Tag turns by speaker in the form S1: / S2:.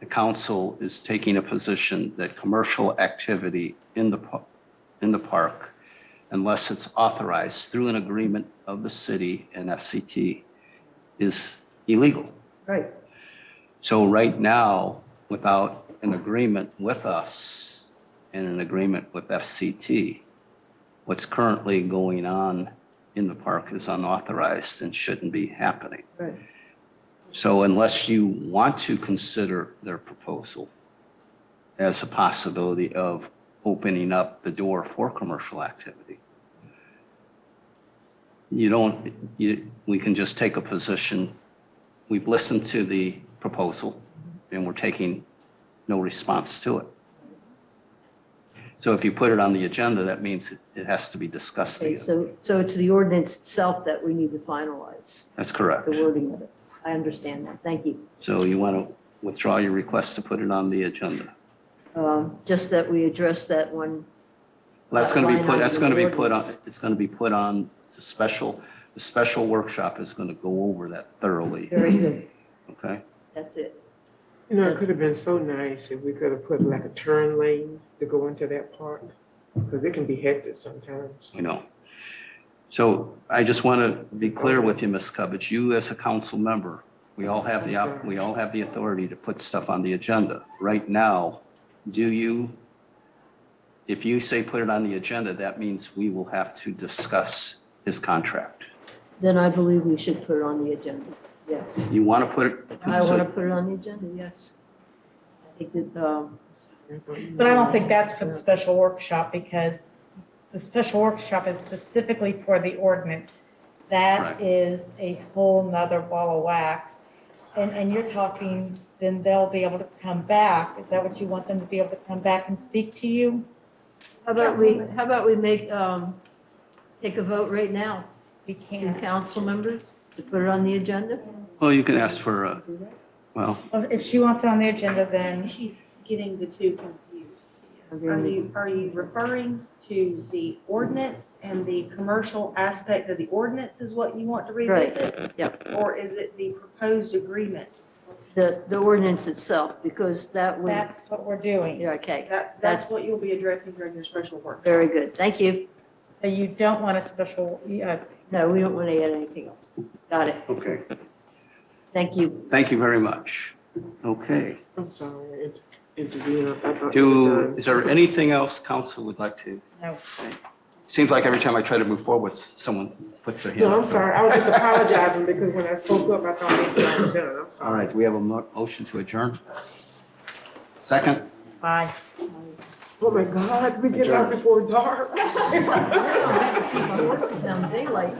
S1: the council is taking a position that commercial activity in the, pa- in the park, unless it's authorized through an agreement of the city and FCT, is illegal.
S2: Right.
S1: So right now, without an agreement with us and an agreement with FCT, what's currently going on in the park is unauthorized and shouldn't be happening.
S2: Right.
S1: So unless you want to consider their proposal as a possibility of opening up the door for commercial activity, you don't, you, we can just take a position. We've listened to the proposal and we're taking no response to it. So if you put it on the agenda, that means it- it has to be discussed
S2: Okay,
S1: again.
S2: so, so it's the ordinance itself that we need to finalize,
S1: That's correct.
S2: the wording of it. I understand that. Thank you.
S1: So you want to withdraw your request to put it on the agenda?
S2: Um, Just that we address that one.
S1: Well, That's going to be
S2: Line
S1: put,
S2: item
S1: that's
S2: in
S1: going to
S2: the
S1: be put on,
S2: ordinance.
S1: it's going to be put on the special, the special workshop is going to go over that thoroughly,
S2: Very good.
S1: okay?
S2: That's it.
S3: You know, it could have been so nice if we could have put like a turn lane to go into that park, because it can be hectic sometimes.
S1: You know. So I just want to be clear with you, Ms. Cubbage, you as a council member, we all have the, op- we all have the authority to put stuff on the agenda. Right now, do you, if you say put it on the agenda, that means we will have to discuss his contract.
S2: Then I believe we should put it on the agenda. Yes.
S1: You want to put it?
S2: I want to put it on the agenda, yes. I think that, um,
S4: But I don't think that's for the special workshop because the special workshop is specifically for the ordinance.
S1: Right.
S4: That is a whole nother ball of wax. And, and you're talking, then they'll be able to come back. Is that what you want them to be able to come back and speak to you?
S2: how about we, how about we make, um, take a vote right now,
S4: We
S2: you
S4: can't.
S2: council members, to put it on the agenda?
S1: Well, you can ask for, a well,
S4: Well, If she wants it on the agenda, then
S5: She's getting the two confused.
S2: Okay.
S5: Are you, are you referring to the ordinance and the commercial aspect of the ordinance is what you want to revisit?
S2: Yep.
S5: Or is it the proposed agreement?
S2: The, the ordinance itself, because that would,
S4: that's what we're doing.
S2: yeah, okay,
S5: That,
S2: That's-
S5: that's what you'll be addressing during your special workshop.
S2: very good, thank you.
S4: So you don't want a special, uh,
S2: No, we don't want to add anything else. Got it,
S1: okay.
S2: thank you.
S1: Thank you very much. Okay.
S3: I'm sorry, it- intervene. I thought you were
S1: Do,
S3: done.
S1: is there anything else council would like to?
S4: no.
S1: Seems like every time I try to move forward, someone puts their hand
S3: No, I'm
S1: up.
S3: sorry, I was just apologizing because when I spoke up, I thought maybe I was done, I'm
S1: All
S3: sorry.
S1: right, we have a mo- motion to adjourn. Second,
S4: Bye.
S3: Oh my God, we get out before dark.
S2: It's now daylight.